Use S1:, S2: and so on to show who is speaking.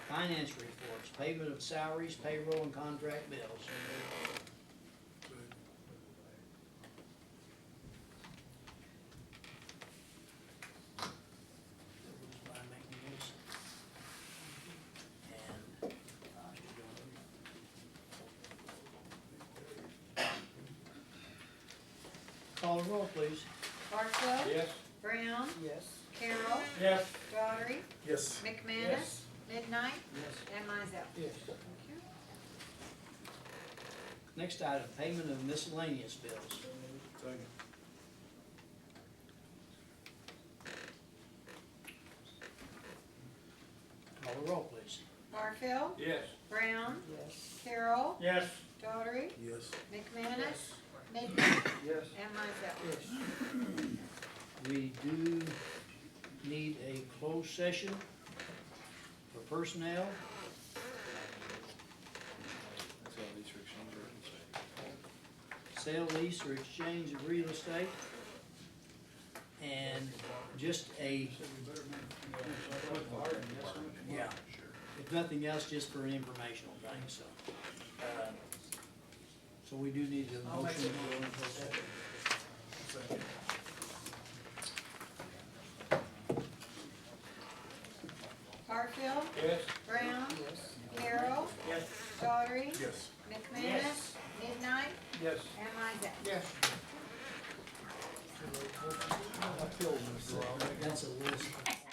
S1: Finance reports, payment of salaries, payroll, and contract bills. By making this. And, uh, Call the roll, please.
S2: Barfield.
S3: Yes.
S2: Brown.
S1: Yes.
S2: Carroll.
S3: Yes.
S2: Daughtry.
S3: Yes.
S2: McManus. Midnight.
S1: Yes.
S2: And Mizell.
S1: Yes.
S2: Thank you.
S1: Next item, payment of miscellaneous bills.
S3: Second.
S1: Call the roll, please.
S2: Barfield.
S3: Yes.
S2: Brown.
S1: Yes.
S2: Carroll.
S3: Yes.
S2: Daughtry.
S3: Yes.
S2: McManus. Midnight.
S3: Yes.
S2: And Mizell.
S1: Yes. We do need a closed session for personnel.
S3: That's how these restrictions are.
S1: sale, lease, or exchange of real estate. And just a, yeah, if nothing else, just for an informational thing, so. uh, So we do need a motion.
S2: Barfield.
S3: Yes.
S2: Brown. Carroll.
S3: Yes.
S2: Daughtry.
S3: Yes.
S2: McManus. Midnight.
S3: Yes.
S2: And Mizell.
S3: Yes.
S1: That's a list.